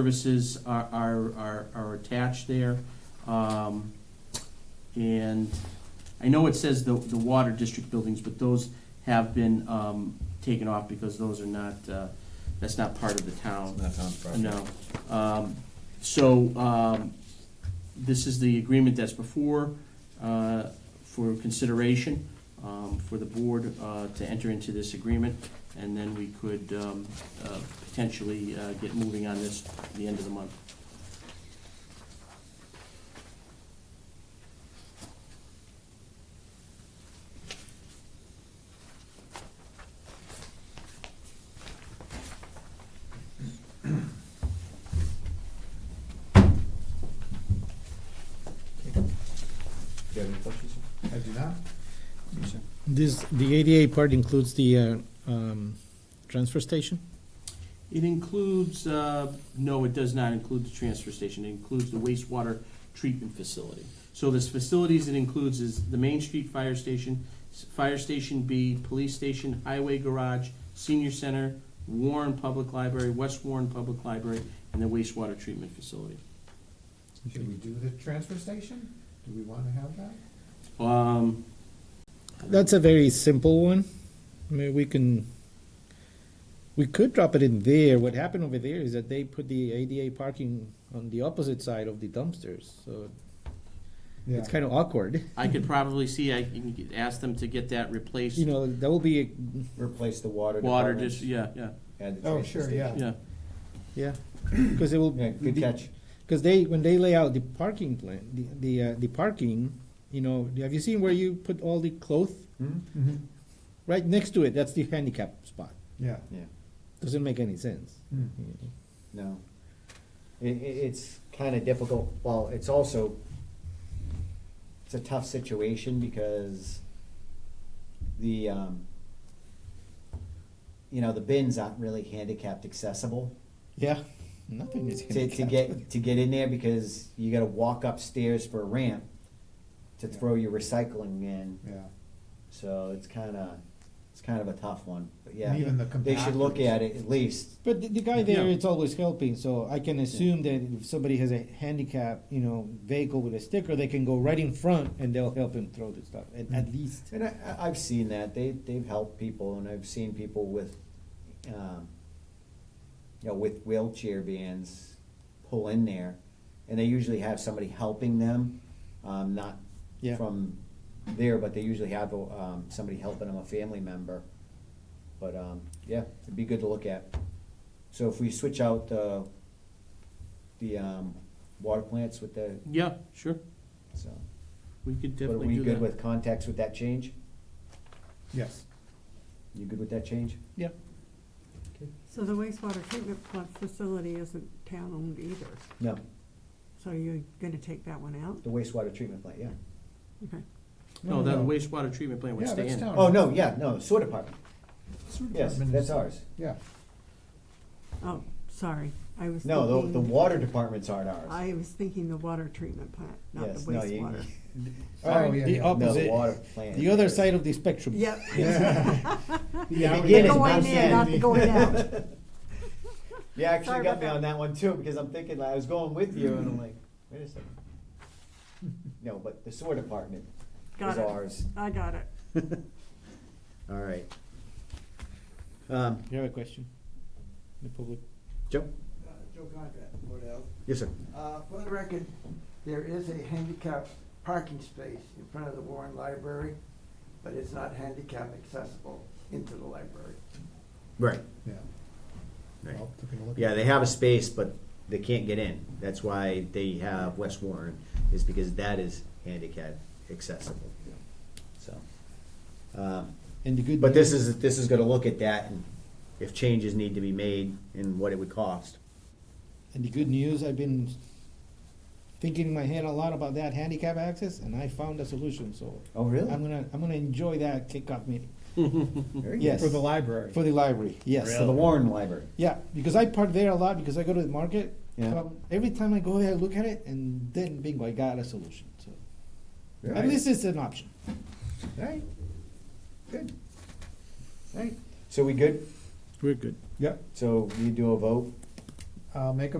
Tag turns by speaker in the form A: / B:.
A: services are, are, are, are attached there. Um, and I know it says the, the water district buildings, but those have been, um, taken off because those are not, uh, that's not part of the town.
B: Not town's property.
A: No. Um, So, um, this is the agreement that's before, uh, for consideration, um, for the board uh, to enter into this agreement, and then we could um, uh, potentially uh, get moving on this at the end of the month.
B: Do you have any questions?
C: I do not.
D: This, the ADA part includes the uh, um, transfer station?
A: It includes, uh, no, it does not include the transfer station, it includes the wastewater treatment facility. So the facilities it includes is the Main Street Fire Station, s- Fire Station B, Police Station, Highway Garage, Senior Center, Warren Public Library, West Warren Public Library, and the wastewater treatment facility.
C: Should we do the transfer station? Do we want to have that?
A: Um,
D: That's a very simple one. I mean, we can, we could drop it in there. What happened over there is that they put the ADA parking on the opposite side of the dumpsters, so it's kind of awkward.
A: I could probably see, I can get- ask them to get that replaced,
D: You know, that will be, a-
B: Replace the water
A: water
B: department
A: dis, yeah, yeah,
B: and the
C: Oh,
B: transfer
C: sure,
B: station.
C: yeah.
A: yeah.
D: yeah, because it will.
B: Yeah, good catch.
D: Because they, when they lay out the parking plan, the, the, uh, the parking, you know, have you seen where you put all the clothes?
C: Mm-hmm.
D: Right next to it, that's the handicap spot.
C: Yeah.
B: Yeah,
D: Doesn't make any sense.
A: Hmm.
C: Mm.
B: no. It, it, it's kind of difficult, well, it's also, it's a tough situation because the, um, you know, the bins aren't really handicapped accessible.
D: Yeah, nothing is
B: to, to get to get in there because you got to walk upstairs for a ramp to throw your recycling in.
C: Yeah.
B: So it's kind of it's kind of a tough one. But yeah,
C: And even the
B: they should look
C: compactors.
B: at it at least.
D: But the, the guy there
A: Yeah.
D: is always helping, so I can assume that if somebody has a handicap, you know, vehicle with a sticker, they can go right in front and they'll help him throw the stuff, at,
B: Mm.
D: at least.
B: And I, I- I've seen that they they've helped people, and I've seen people with, um, you know, with wheelchair vans pull in there, and they usually have somebody helping them, um, not
D: Yeah.
B: from there, but they usually have um, somebody helping them, a family member. But um, yeah, it'd be good to look at. So if we switch out the the um, water plants with the
A: Yeah, sure,
B: so,
A: we could
B: but are
A: definitely
B: we
A: do that.
B: good with contacts with that change?
C: Yes.
B: You good with that change?
D: Yeah.
E: So the wastewater treatment plant facility isn't town-owned either,
B: No,
E: so you're gonna take that one out?
B: the wastewater treatment plant. Yeah.
E: Okay.
A: No, that wastewater treatment plant would
C: Yeah,
A: stay in.
C: that's town.
B: Oh no, yeah, no sewer department.
C: Sewer
B: Yes,
C: department
B: that's
C: is-
B: ours.
C: Yeah.
E: Oh, sorry, I was thinking.
B: No, the the water departments aren't ours.
E: I was thinking the water treatment plant, not the
B: Yes, no, you-
E: wastewater.
D: The
C: Oh, yeah, yeah.
B: No, the
D: opposite,
B: water plant.
D: the other side of the spectrum.
E: Yep,
C: Yeah.
B: The
E: the
B: beginning,
E: going
B: not the
E: in, not the
B: end.
E: going out.
B: You actually
E: Sorry
B: got
E: about
B: me
E: that.
B: on that one too, because I'm thinking, like, I was going with you and I'm like, wait a second. No, but the sewer department
E: Got
B: is
E: it.
B: ours.
E: I got it.
B: All right. Um,
D: You have a question? The public,
B: Joe?
F: Uh, Joe Conrad, Board of Health.
B: Yes, sir.
F: Uh, For the record, there is a handicap parking space in front of the Warren Library, but it's not handicap accessible into the library.
B: Right,
C: Yeah.
B: right.
C: Well, took a look
B: Yeah,
C: at
B: they have a space, but they can't get in. That's why they have West Warren, is because that is handicap accessible. So, um,
D: and the good.
B: but this is, this is gonna look at that and if changes need to be made and what it would cost.
D: And the good news, I've been thinking in my head a lot about that handicap access, and I found a solution. So
B: Oh, really?
D: I'm gonna I'm gonna enjoy that kickoff meeting
B: Yes.
D: Yes.
C: For the library.
D: for the library. Yes,
B: For the Warren Library.
D: yeah, because I park there a lot because I go to the market.
B: Yeah.
D: Um, every time I go there, I look at it, and then bingo, I got a solution. So
B: Right.
D: at least it's an option.
B: Right. Good. Right. So we good?
D: We're good.
C: Yep.
B: So you do a vote?
C: I'll make a